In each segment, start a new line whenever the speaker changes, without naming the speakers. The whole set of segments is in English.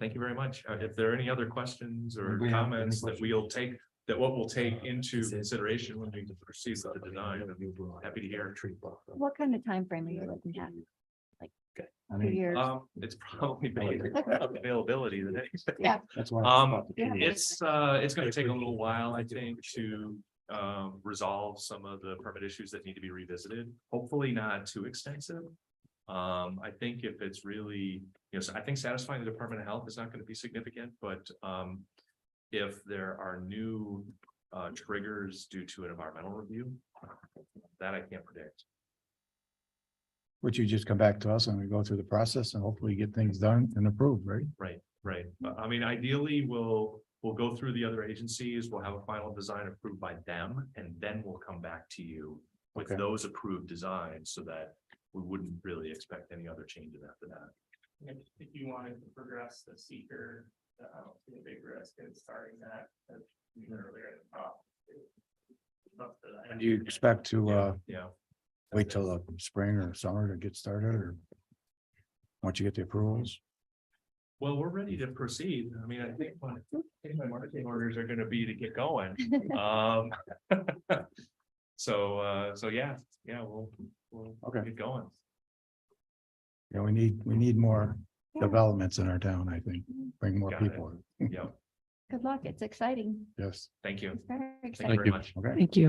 Thank you very much. Uh, If there are any other questions or
Anybody have any
comments that
questions? Uh,
we'll take, that what we'll take into consideration when we proceed to deny, happy to hear.
Tree buffer.
What kind of time frame are you looking at?
I
Two
mean,
years?
um, it's probably based
Okay.
on availability than anything.
Yeah,
that's why. I
Um,
thought the
yeah.
tree-
it's, uh, it's gonna take a little while, I think, to, um, resolve some of the permit issues that need to be revisited. Hopefully not too extensive. Um, I think if it's really, you know, so I think satisfying the Department of Health is not gonna be significant, but, um, if there are new, uh, triggers due to an environmental review, that I can't predict.
Would you just come back to us and we go through the process and hopefully get things done and approved, right?
Right, but I mean, ideally, we'll, we'll go through the other agencies, we'll have a final design approved by them, and then we'll come back to you. With
Okay.
those approved designs, so that we wouldn't really expect any other changes after that.
If, if you wanted to progress the seeker, uh, I don't see a big risk in starting that, as you said earlier in the talk. Up to that.
And do you expect to uh
Yeah,
wait till the spring or summer to get started or? Once you get the approvals?
well, we're ready to proceed, I mean, I think my, I think my marching orders are gonna be to get going, um. So, uh, so yeah, yeah, we'll, we'll
Okay.
get going.
Yeah, we need, we need more
Yeah.
developments in our town, I think. Bring more
Got it.
people. in.
Yeah,
Good luck. It's exciting.
Yes.
thank you,
It's very
thank you
exciting.
very much.
Okay.
Thank you.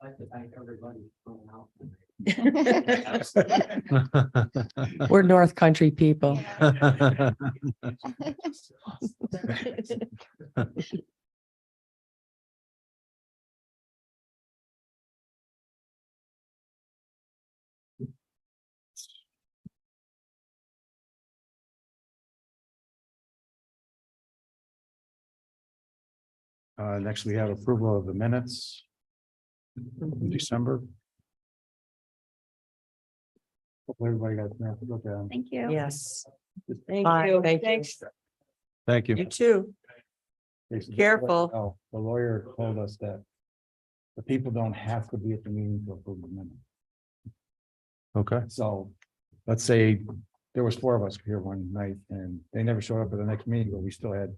I'd like to thank everybody for going out.
We're North Country people.
Yeah.
Uh, next we have approval of the minutes. from December. Hopefully everybody got a chance to look at them.
Thank you.
Yes.
Thank
Bye,
you.
thank you.
Thanks.
Thank
You too.
Jason, just
Careful.
let- Oh, the lawyer told us that. The people don't have to be at the meeting to approve the minute. Okay. So, let's say there was four of us here one night and they never showed up at the next meeting, but we still had.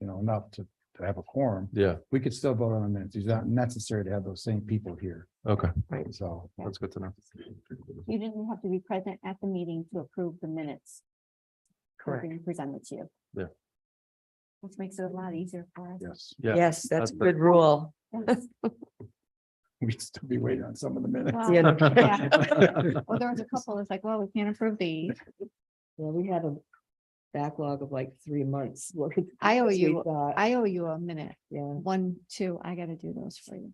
You know, enough to, to have a quorum.
Yeah,
We could still vote on the minutes. It's not necessary to have those same people here.
okay,
So,
that's good to know.
You didn't have to be present at the meeting to approve the minutes. that were being Presented to you.
Yeah.
Which makes it a lot easier for us.
yes,
Yeah.
Yes, that's
that's
a
the-
good rule.
we'd still be waiting on some of the minutes.
Wow.
The end of-
Yeah. Well, there was a couple, it's like, well, we can't approve these.
Well, we had a backlog of like three months. worth of
I owe
things we
you-
thought,
I owe you a minute.
Yeah,
One, two, I gotta do those for you.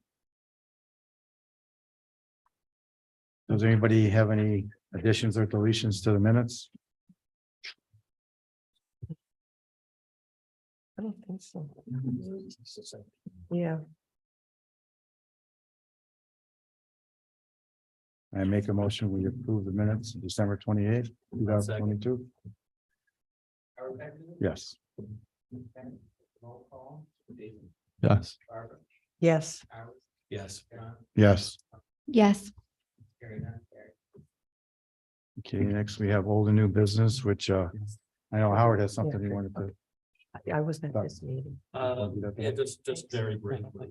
Does anybody have any additions or deletions to the minutes?
I don't think so. Yeah.
I make a motion, we approve the minutes of December twenty eighth, two thousand twenty two. Yes.
Yes.
Yes.
Yes.
Yes.
Yes,
Okay, next we have old and new business, which uh, I know Howard has something he wanted to.
I- I wasn't at
Sorry.
this meeting.
yeah,
just,
just very briefly,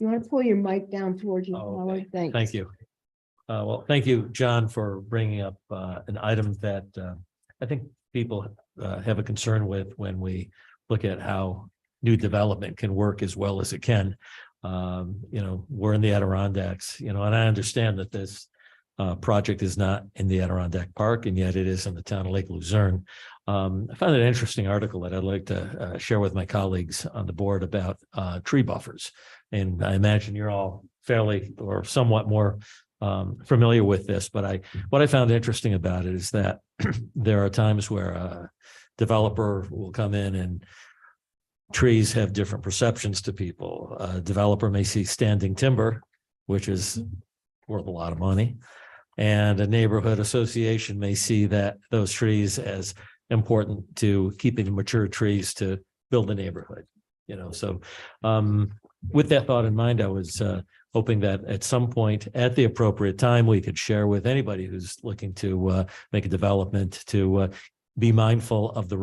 you want to pull your mic down towards you,
Oh,
Howard? Thanks.
Thank you. Uh, well, thank you, John, for bringing up, uh, an item that, uh, I think people, uh, have a concern with when we look at how new development can work as well as it can. Um, you know, we're in the Adirondacks, you know, and I understand that this, uh, project is not in the Adirondack Park, and yet it is in the town of Lake Luzerne. Um, I found an interesting article that I'd like to, uh, share with my colleagues on the board about, uh, tree buffers. And I imagine you're all fairly or somewhat more um, familiar with this, but I, what I found interesting about it is that there are times where a developer will come in and trees have different perceptions to people. A developer may see standing timber, which is worth a lot of money. And a neighborhood association may see that those trees as important to keeping mature trees to build a neighborhood, you know, so um, with that thought in mind, I was uh, hoping that at some point, at the appropriate time, we could share with anybody who's looking to uh, make a development to uh, be mindful of the